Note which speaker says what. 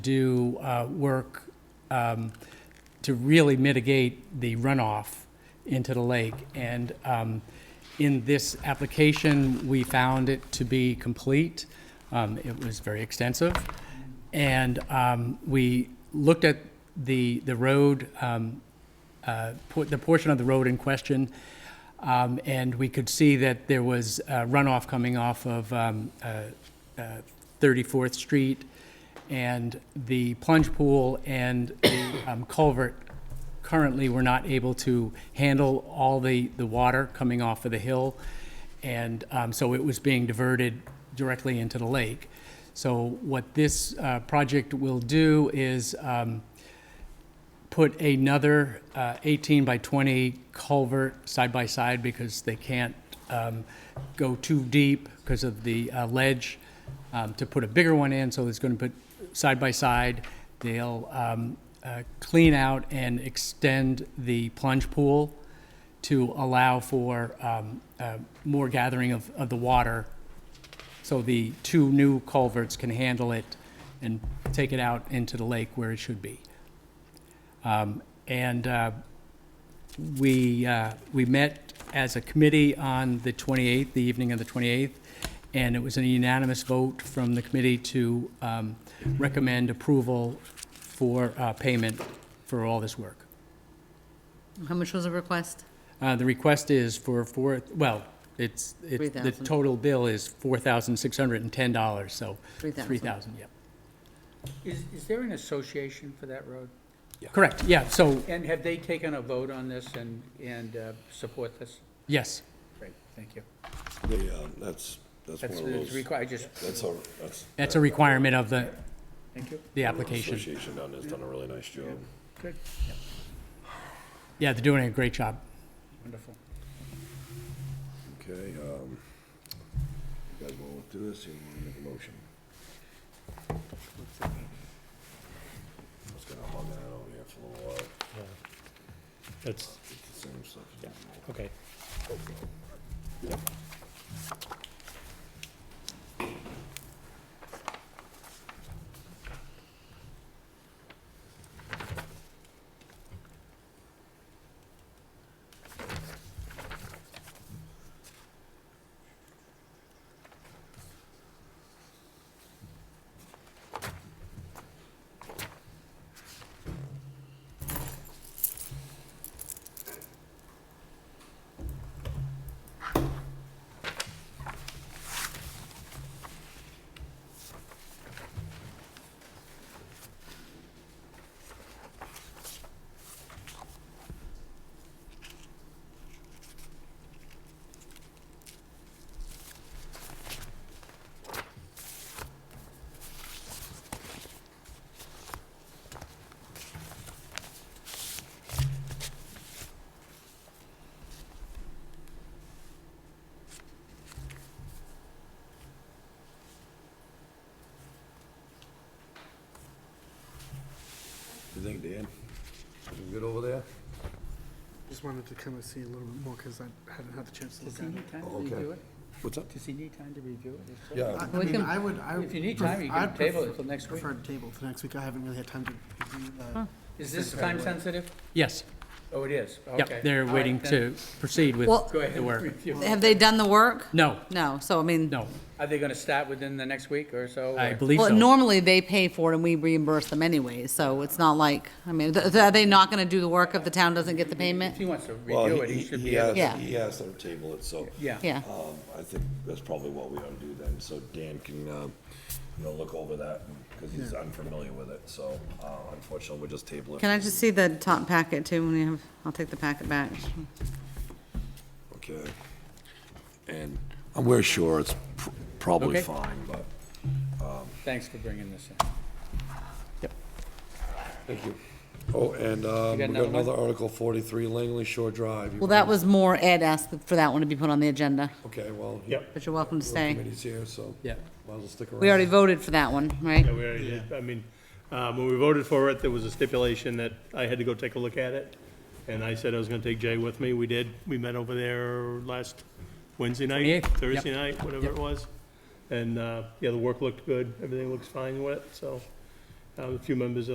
Speaker 1: do uh, work um, to really mitigate the runoff into the lake. And um, in this application, we found it to be complete. Um, It was very extensive. And um, we looked at the, the road, um, uh, por- the portion of the road in question, um, and we could see that there was uh, runoff coming off of um, uh, uh, 34th Street and the plunge pool and the um, culvert currently were not able to handle all the, the water coming off of the hill. And um, so it was being diverted directly into the lake. So what this uh, project will do is um, put another uh, 18 by 20 culvert side by side because they can't um, go too deep because of the uh, ledge, um, to put a bigger one in, so it's going to put side by side. They'll um, uh, clean out and extend the plunge pool to allow for um, uh, more gathering of, of the water so the two new culverts can handle it and take it out into the lake where it should be. Um, And uh, we, uh, we met as a committee on the 28th, the evening of the 28th, and it was a unanimous vote from the committee to um, recommend approval for uh, payment for all this work.
Speaker 2: How much was the request?
Speaker 1: Uh, The request is for four, well, it's, it's, the
Speaker 2: 3,000.
Speaker 1: total bill is $4,610, so.
Speaker 2: 3,000.
Speaker 1: 3,000, yeah.
Speaker 3: Is, is there an association for that road?
Speaker 1: Correct, yeah, so,
Speaker 3: And have they taken a vote on this and, and uh, support this?
Speaker 1: yes.
Speaker 3: Great, thank you.
Speaker 4: Yeah, that's, that's one
Speaker 3: That's,
Speaker 4: of
Speaker 3: it's
Speaker 4: those,
Speaker 3: required, I just,
Speaker 4: that's our, that's.
Speaker 1: That's a requirement of the,
Speaker 3: thank you,
Speaker 1: the
Speaker 4: our
Speaker 1: application.
Speaker 4: Association down there's done a really nice job.
Speaker 3: good,
Speaker 1: Yeah, they're doing a great job.
Speaker 3: wonderful.
Speaker 4: Okay, um, you guys want to do this, you want to make a motion? I was gonna hug that over here for a little while,
Speaker 5: That's,
Speaker 4: it's the same stuff.
Speaker 5: okay.
Speaker 4: You think, Dan? You good over there?
Speaker 6: Just wanted to kind of see a little bit more because I hadn't had the chance to
Speaker 3: Does
Speaker 6: look
Speaker 3: he
Speaker 6: at it.
Speaker 3: need time to
Speaker 4: Oh, okay.
Speaker 3: review it?
Speaker 4: What's up?
Speaker 3: Does he need time to review it? If so-
Speaker 4: Yeah,
Speaker 6: I
Speaker 2: We
Speaker 6: mean,
Speaker 2: can-
Speaker 6: I would, I would.
Speaker 3: If you need time, you
Speaker 6: pref-
Speaker 3: can
Speaker 6: I'd
Speaker 3: table it
Speaker 6: prefer-
Speaker 3: till next week.
Speaker 6: Prefer to table to next week. I haven't really had time to review the.
Speaker 3: Is this time sensitive?
Speaker 1: Yes,
Speaker 3: Oh, it is, okay.
Speaker 1: yep, they're
Speaker 3: All right,
Speaker 1: waiting
Speaker 3: then.
Speaker 1: to proceed with
Speaker 2: Well-
Speaker 3: Go ahead
Speaker 1: the
Speaker 3: and
Speaker 1: work.
Speaker 3: review.
Speaker 2: Have they done the work?
Speaker 1: No,
Speaker 2: No, so I mean,
Speaker 1: no,
Speaker 3: Are they gonna start within the next week or so?
Speaker 1: I
Speaker 3: or-
Speaker 1: believe
Speaker 2: well,
Speaker 1: so.
Speaker 2: normally they pay for it and we reimburse them anyway, so it's not like, I mean, th- th- are they not gonna do the work if the town doesn't get the
Speaker 3: If
Speaker 2: payment?
Speaker 3: he wants to
Speaker 4: well,
Speaker 3: review it,
Speaker 4: he,
Speaker 3: he
Speaker 4: he
Speaker 3: should
Speaker 4: he uh,
Speaker 3: be able.
Speaker 4: asked,
Speaker 3: to.
Speaker 2: Yeah.
Speaker 4: he asked them to table it, so.
Speaker 3: Yeah.
Speaker 2: Yeah,
Speaker 4: Um, I think that's probably what we ought to do then, so Dan can, um, you know, look over that, because he's unfamiliar with it, so, uh, unfortunately, we'll just table it.
Speaker 2: can I just see the top packet too, when you have, I'll take the packet back.
Speaker 4: Okay. And I'm, we're sure it's pr- probably
Speaker 3: Okay.
Speaker 4: fine, but.
Speaker 3: Thanks for bringing this in.
Speaker 4: Thank you. Oh, and, um,
Speaker 3: You got another one?
Speaker 4: Article forty-three, Langley Shore Drive. You
Speaker 2: Well,
Speaker 4: wanna-
Speaker 2: that was more Ed asked for that one to be put on the agenda,
Speaker 4: Okay, well. he-
Speaker 5: Yep.
Speaker 2: but you're welcome to stay.
Speaker 4: Committee's here, so.
Speaker 1: Yeah.
Speaker 4: Might as well stick around.
Speaker 2: We already voted for that one, right?
Speaker 5: Yeah, we already did. I mean, um, when we voted for it, there was a stipulation that I had to go take a look at it. And I said I was gonna take Jay with me. We did. We met over there last Wednesday
Speaker 1: 28th,
Speaker 5: night,
Speaker 1: yep.
Speaker 5: Thursday night, whatever
Speaker 1: Yep.
Speaker 5: it was. And, uh, yeah, the work looked good. Everything looks fine with it, so Uh, A few members of